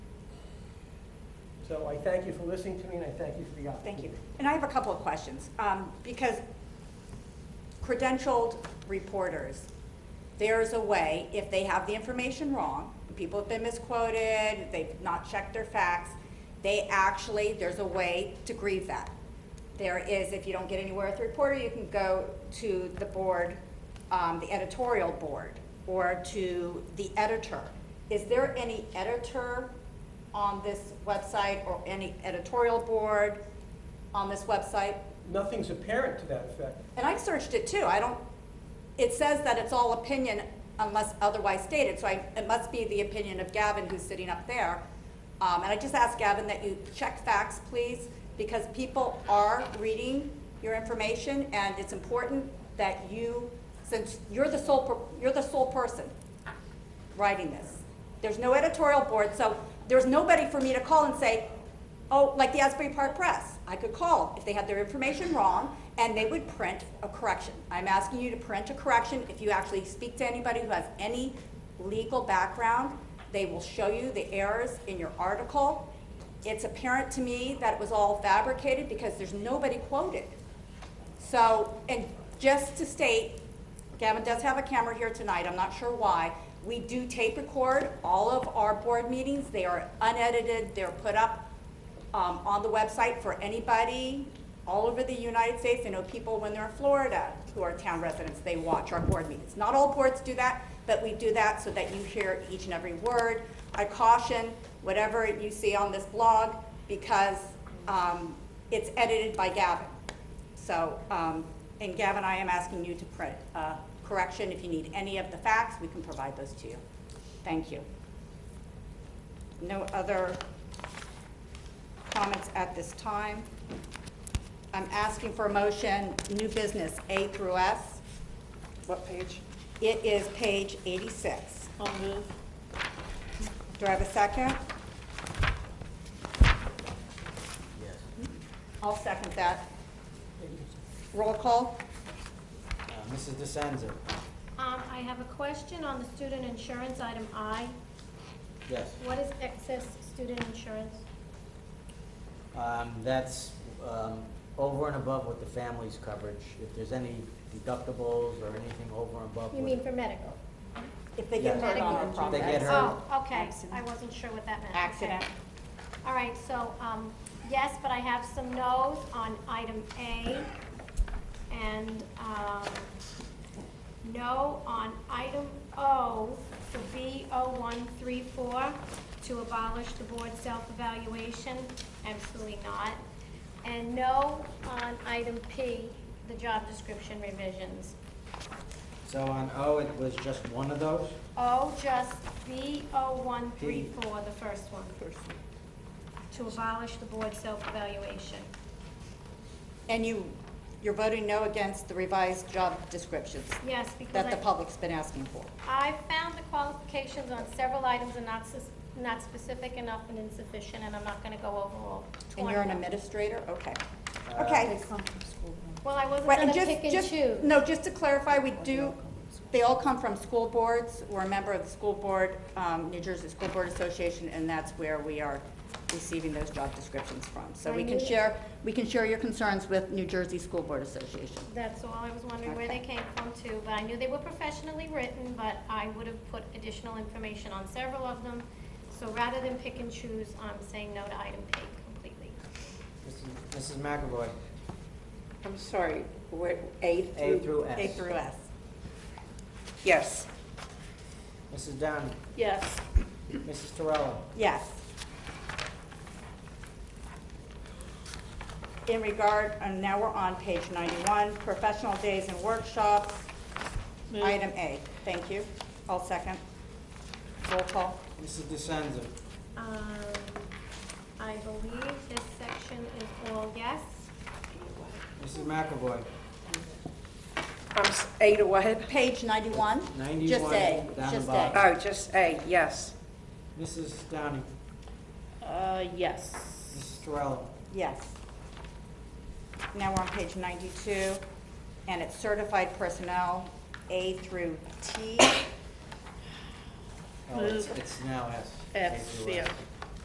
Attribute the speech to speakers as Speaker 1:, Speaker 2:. Speaker 1: So I thank you for listening to me, and I thank you for the opportunity.
Speaker 2: Thank you. And I have a couple of questions, um, because credentialed reporters, there's a way, if they have the information wrong, people have been misquoted, they've not checked their facts, they actually, there's a way to grieve that. There is, if you don't get anywhere with the reporter, you can go to the board, um, the editorial board, or to the editor. Is there any editor on this website or any editorial board on this website?
Speaker 1: Nothing's apparent to that effect.
Speaker 2: And I searched it too, I don't, it says that it's all opinion unless otherwise stated, so I, it must be the opinion of Gavin who's sitting up there. Um, and I just ask Gavin that you check facts, please, because people are reading your information, and it's important that you, since you're the sole, per- you're the sole person writing this. There's no editorial board, so there's nobody for me to call and say, oh, like the Asbury Park Press, I could call if they had their information wrong, and they would print a correction. I'm asking you to print a correction. If you actually speak to anybody who has any legal background, they will show you the errors in your article. It's apparent to me that it was all fabricated because there's nobody quoted. So, and just to state, Gavin does have a camera here tonight, I'm not sure why. We do tape record all of our board meetings, they are unedited, they're put up um, on the website for anybody all over the United States. I know people when they're in Florida who are town residents, they watch our board meetings. Not all boards do that, but we do that so that you hear each and every word. I caution whatever you see on this blog because um, it's edited by Gavin. So, um, and Gavin, I am asking you to print a correction. If you need any of the facts, we can provide those to you. Thank you. No other comments at this time. I'm asking for a motion, new business A through S.
Speaker 3: What page?
Speaker 2: It is page 86.
Speaker 3: I'll move.
Speaker 2: Do I have a second?
Speaker 4: Yes.
Speaker 2: I'll second that. Roll call?
Speaker 4: Uh, Mrs. DeSenza?
Speaker 5: Um, I have a question on the student insurance, item I.
Speaker 4: Yes.
Speaker 5: What is excess student insurance?
Speaker 4: Um, that's, um, over and above with the family's coverage. If there's any deductibles or anything over and above.
Speaker 5: You
Speaker 4: what-
Speaker 5: mean for medical?
Speaker 2: If they get
Speaker 4: Yes.
Speaker 2: hurt on our
Speaker 4: Medical insurance. They
Speaker 2: property.
Speaker 4: get hurt.
Speaker 5: Oh, okay,
Speaker 3: Accident.
Speaker 5: I wasn't sure what that meant. Okay.
Speaker 2: Accident.
Speaker 5: All right, so, um, yes, but I have some no's on item A, and, um, no on item O for B O one three four, to abolish the board self-evaluation, absolutely not. And no on item P, the job description revisions.
Speaker 4: So on O, it was just one of those?
Speaker 5: O just B O one three four, the first one. To abolish the board self-evaluation.
Speaker 2: And you, you're voting no against the revised job descriptions
Speaker 5: Yes, because
Speaker 2: that the
Speaker 5: I,
Speaker 2: public's been asking for.
Speaker 5: I found the qualifications on several items are not, sus- not specific enough and insufficient, and I'm not gonna go over all
Speaker 2: And
Speaker 5: twenty
Speaker 2: you're an
Speaker 5: of them.
Speaker 2: administrator? Okay.
Speaker 4: Uh,
Speaker 2: Okay.
Speaker 5: Well, I wasn't
Speaker 2: Right,
Speaker 5: gonna
Speaker 2: and just,
Speaker 5: pick and
Speaker 2: just,
Speaker 5: choose.
Speaker 2: no, just to clarify, we do, they all come from school boards. We're a member of the school board, um, New Jersey School Board Association, and that's where we are receiving those job descriptions from. So we
Speaker 5: I
Speaker 2: can
Speaker 5: knew-
Speaker 2: share, we can share your concerns with New Jersey School Board Association.
Speaker 5: That's all, I was wondering where
Speaker 2: Okay.
Speaker 5: they came from too, but I knew they were professionally written, but I would have put additional information on several of them. So rather than pick and choose, I'm saying no to item P completely.
Speaker 4: Mrs. Mrs. McAvoy?
Speaker 3: I'm sorry, where, A
Speaker 4: A
Speaker 3: through?
Speaker 4: through S?
Speaker 2: A through S.
Speaker 3: Yes.
Speaker 4: Mrs. Downey?
Speaker 3: Yes.
Speaker 4: Mrs. Terrell?
Speaker 2: Yes. In regard, and now we're on page 91, professional days and workshops,
Speaker 3: Move.
Speaker 2: item A. Thank you. I'll second. Roll call.
Speaker 4: Mrs. DeSenza?
Speaker 5: Um, I believe this section is all yes.
Speaker 4: Mrs. McAvoy?
Speaker 3: I'm, s- A to what?
Speaker 2: Page 91? Just
Speaker 4: 91,
Speaker 2: A,
Speaker 4: down the
Speaker 2: just
Speaker 4: bottom.
Speaker 2: A.
Speaker 3: Oh, just A, yes.
Speaker 4: Mrs. Downey?
Speaker 3: Uh, yes.
Speaker 4: Mrs. Terrell?
Speaker 2: Yes. Now we're on page 92, and it's certified personnel, A through T.
Speaker 4: Oh, it's,
Speaker 3: Move.
Speaker 4: Oh, it's now S.
Speaker 3: F,
Speaker 4: A through S.
Speaker 3: yeah.